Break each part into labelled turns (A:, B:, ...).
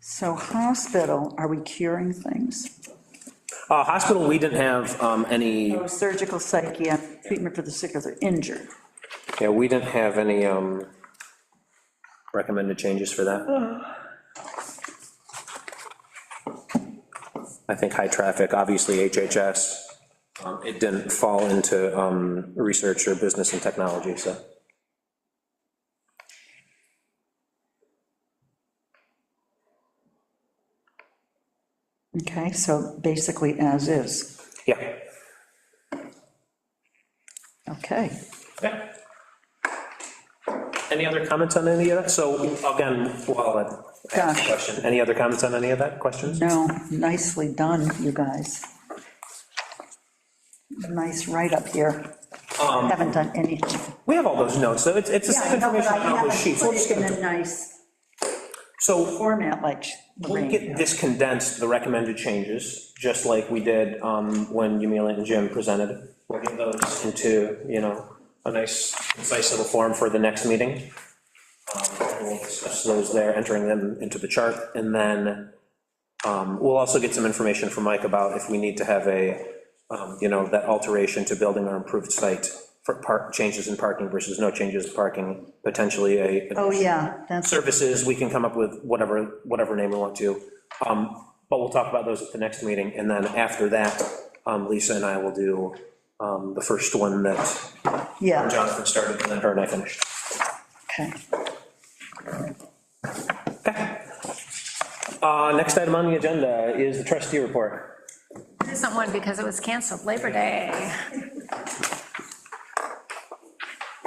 A: So hospital, are we curing things?
B: Uh, hospital, we didn't have, um, any,
A: Oh, Surgical psychiatric treatment for the sick or the injured.
B: yeah, we didn't have any, um, recommended changes for that. I think high traffic, obviously HHS, um, it didn't fall into, um, research or business and technology, so.
A: Okay, so basically as is.
B: Yeah,
A: Okay.
B: Okay. Any other comments on any of that? So again, well, I asked a question. Any other comments on any of that? Questions?
A: No, nicely done, you guys. Nice write-up here.
B: Um,
A: Haven't done anything.
B: We have all those notes, so it's, it's the same information on all those sheets. We'll just
A: in
B: get-
A: a nice
B: So
A: format like
B: we'll get this condensed, the recommended changes, just like we did um, when Yumila and Jim presented. it. We'll get those into, you know, a nice, concise little form for the next meeting. Um, and We'll discuss those there, entering them into the chart, and then um, we'll also get some information from Mike about if we need to have a, um, you know, that alteration to building or improved site for park, changes in parking versus no changes in parking, potentially a.
A: Oh, yeah, that's,
B: services, we can come up with whatever, whatever name we want to. Um, But we'll talk about those at the next meeting, and then after that, um, Lisa and I will do um, the first one that
A: yeah,
B: Jonathan started, and then her and I finished.
A: okay.
B: Uh, Next item on the agenda is the trustee report.
C: There's not one because it was canceled, Labor Day.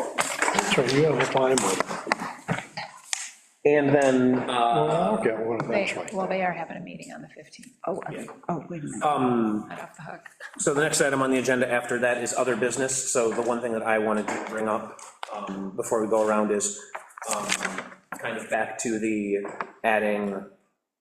D: That's right, you have a time limit.
B: And then, uh,
D: I'll get one
C: They-
D: eventually.
C: Well, they are having a meeting on the 15th,
A: Oh, I- oh, wait a minute.
B: Um,
C: not off the hook.
B: so the next item on the agenda after that is other business. So the one thing that I wanted to bring up um, before we go around is um, kind of back to the adding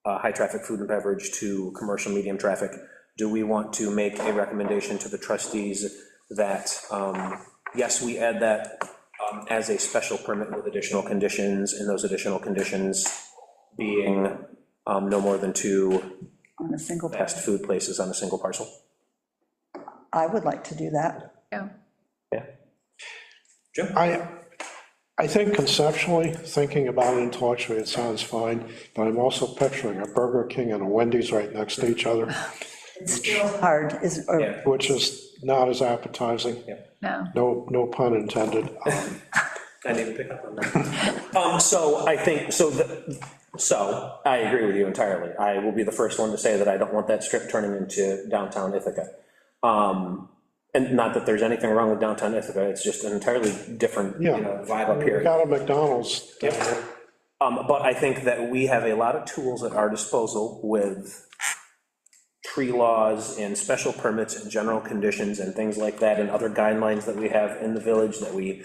B: uh, high-traffic food and beverage to commercial medium traffic, do we want to make a recommendation to the trustees that, um, yes, we add that um, as a special permit with additional conditions, and those additional conditions being um, no more than two
A: On a single, pa-
B: fast food places on a single parcel?
A: I would like to do that.
C: Yeah.
B: Yeah.
D: I, I think conceptually, thinking about it intellectually, it sounds fine, but I'm also picturing a Burger King and a Wendy's right next to each other,
A: It's still hard, is, or-
B: Yeah.
D: which is not as appetizing.
C: No,
D: No, no pun intended. Um,
B: I didn't pick up on that. Um, so I think, so the, so I agree with you entirely. I will be the first one to say that I don't want that strip turning into downtown Ithaca. Um, and not that there's anything wrong with downtown Ithaca, it's just an entirely different, you
D: Yeah.
B: know, vibe up
D: we
B: here.
D: Got a McDonald's. down there.
B: Um, but I think that we have a lot of tools at our disposal with tree laws and special permits and general conditions and things like that, and other guidelines that we have in the village that we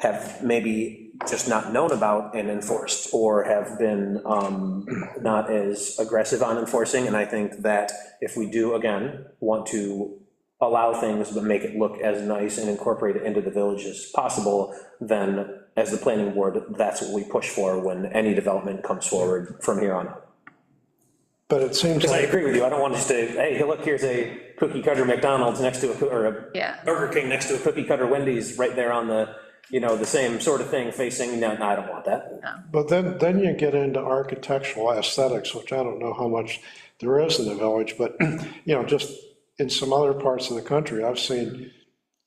B: have maybe just not known about and enforced, or have been um, not as aggressive on enforcing, and I think that if we do, again, want to allow things but make it look as nice and incorporate it into the village as possible, then as the planning board, that's what we push for when any development comes forward from here on out.
D: But it seems
B: I
D: like,
B: agree with you, I don't want us to, hey, look, here's a cookie cutter McDonald's next to a, coo- or a
C: yeah.
B: Burger King next to a cookie cutter Wendy's, right there on the, you know, the same sort of thing facing, no, no, I don't want that.
D: but then, then you get into architectural aesthetics, which I don't know how much there is in the village, but, you know, just in some other parts of the country, I've seen,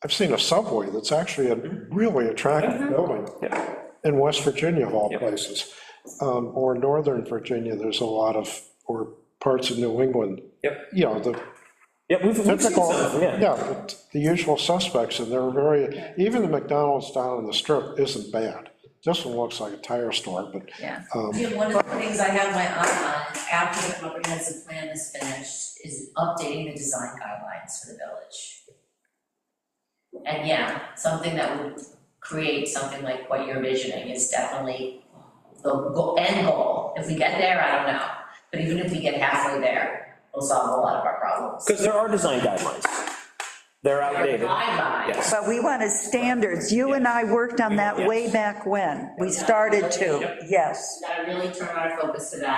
D: I've seen a subway that's actually a really
B: Mm-hmm.
D: attractive building.
B: Yeah.
D: in West Virginia of all places, um, or Northern Virginia, there's a lot of, or parts of New England.
B: Yep.
D: You know, the
B: Yeah, we've, we've seen
D: typical,
B: some, yeah.
D: yeah, the- the usual suspects, and they're very, even the McDonald's down on the strip isn't bad. This one looks like a tire store, but um,
C: Yeah.
E: Jim, one of the things I have my eye on after the comprehensive plan is finished is updating the design guidelines for the village. And yeah, something that would create something like what you're envisioning is definitely the go- end goal. If we get there, I don't know, but even if we get halfway there, we'll solve a lot of our problems.
B: Because there are design guidelines. They're outdated.
E: Guidelines,
B: Yes.
A: But we wanted standards. You and I worked on that way back when. We started to, yes.
E: gotta really turn our focus to that